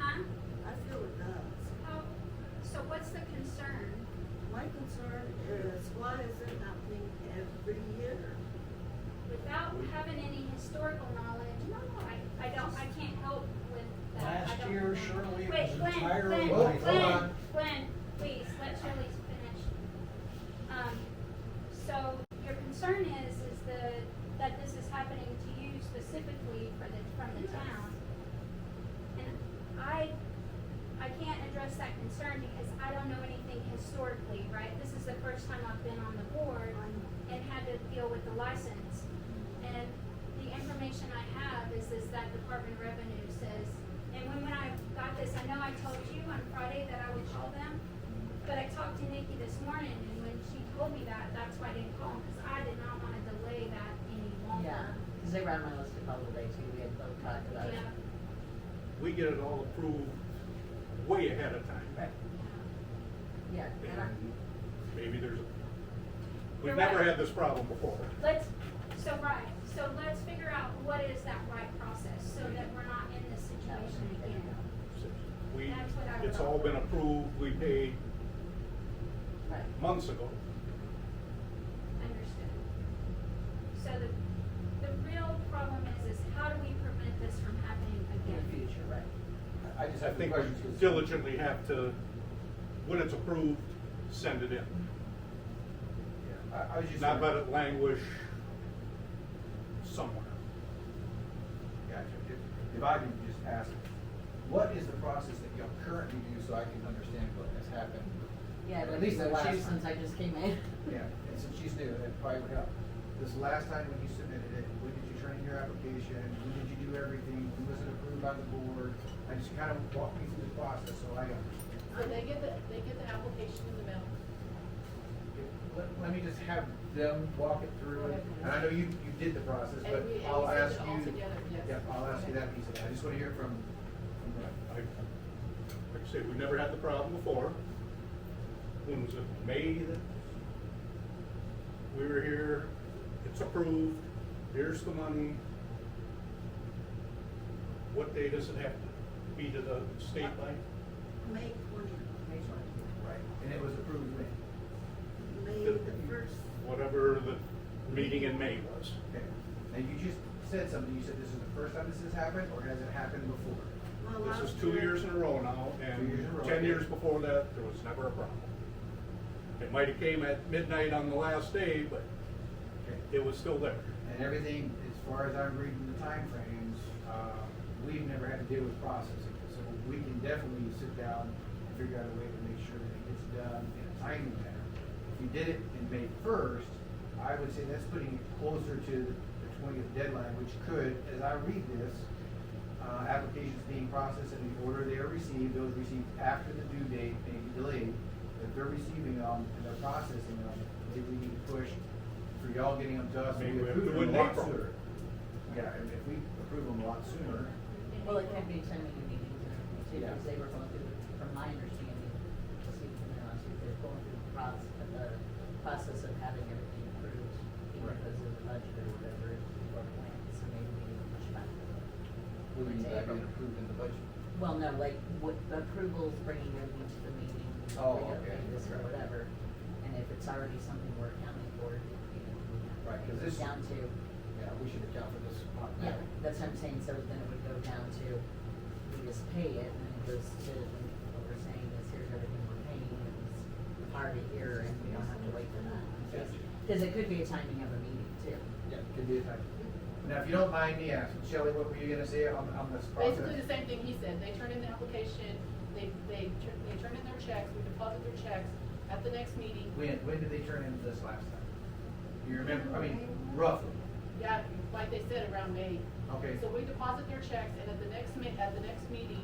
I feel it does. How, so what's the concern? My concern is why is it happening every year? Without having any historical knowledge, no, I, I don't, I can't help with that. I Last don't year know. Shirley Wait, was Glenn, entirely Glenn, white. Glenn, Hold on. Glenn, please, let Shirley finish. Um, so your concern is, is the, that this is happening to you specifically for the, from the town. And I, I can't address that concern because I don't know anything historically, right? This is the first time I've been on the board and had to deal with the license. And the information I have is, is that Department of Revenue says, and when, when I got this, I know I told you on Friday that I would call them, but I talked to Nikki this morning, and when she told me that, that's why I didn't call them, because I did not want to delay that any Yeah, longer. because they were on my list to call today too, we had both talked about it. Yeah. We get it all approved way ahead of time. Right, yeah, and I, And maybe there's, a You're we've never right. had this problem before. Let's, so right, so let's figure out what is that right process, so that we're not in this that was situation me again. thinking, We, That's what I it's would- all been approved, we paid right, months ago. Understood. So the, the real problem is, is how do we prevent this from happening in again? the future, right. I just I have a think question. we diligently have to, when it's approved, send it in. I, I was just. Not let wondering- it languish somewhere. Gotcha. If, if I can just ask, what is the process that y'all currently do so I can understand what has happened? Yeah, but At least it's the been last time. two since I just came in. Yeah, and since she's new, that probably would help. This last time when you submitted it, when did you turn in your application? When did you do everything? When was it approved by the board? I just kind of walk me through the process so I understand. So Uh, they get the, they get the application in the mail. Let, let me just have them walk it through, and and I know you, you did the process, And but we- and I'll we send ask it all you. together, yes. Yeah, I'll ask you Okay. that piece of it, I just wanna hear it from, from Brett. I, like I said, we never had the problem before. When was it, May that? We were here, it's approved, here's the money. What day does it have to be to the state by? May twentieth, Make sure. right, and it was approved when? May the first, Whatever the meeting in May was. Okay, and you just said something, you said this is the first time this has happened, or has it happened before? well, last year. This is two years in a row now, Two years and in a row. ten years before that, there was never a problem. It might have came at midnight on the last day, but Okay, it was still there. and everything, as far as I'm reading the timeframes, uh, we've never had to deal with processing, so we can definitely sit down and figure out a way to make sure that it gets done in a timely manner. If you did it in May first, I would say that's putting it closer to the twentieth deadline, which could, as I read this, uh, applications being processed in the order they are received, those received after the due date may be delayed. If they're receiving them and they're processing them, maybe we need to push for y'all getting them to us, Maybe maybe we have to do it approve them in a lot April. sooner. Yeah, and if we approve them a lot sooner, Well, it could be ten minute meetings and everything too, Yeah. because they were going through, from my understanding, to see from their last, they're going through the process, the process of having everything approved, either Right. because of the budget or whatever, or plans, so maybe we need to push back a little. we need that April. being approved in the budget. Well, no, like, what, the approvals, bringing everything to the meeting. we Oh, gotta okay, do This or right. whatever, and if it's already something we're accounting for, you know, we have to Right, 'cause bring it this- Down to, Yeah, we should account for this. yeah, automatically. that's what I'm saying, so then it would go down to, we just pay it, and it goes to, what we're saying is, here's everything we're paying, and it's already here, and we don't have to wait for that. Because- Cause it could be a timing of a meeting too. Yeah, could be a type. Now, if you don't mind me asking, Shelley, what were you gonna say on, on this process? Basically the same thing he said, they turn in the application, they, they, tur- they turn in their checks, we deposit their checks at the next meeting. When, when did they turn in this last time? You remember, I mean, roughly, Yeah, like they said, around May. okay. So we deposit their checks and at the next ma, at the next meeting,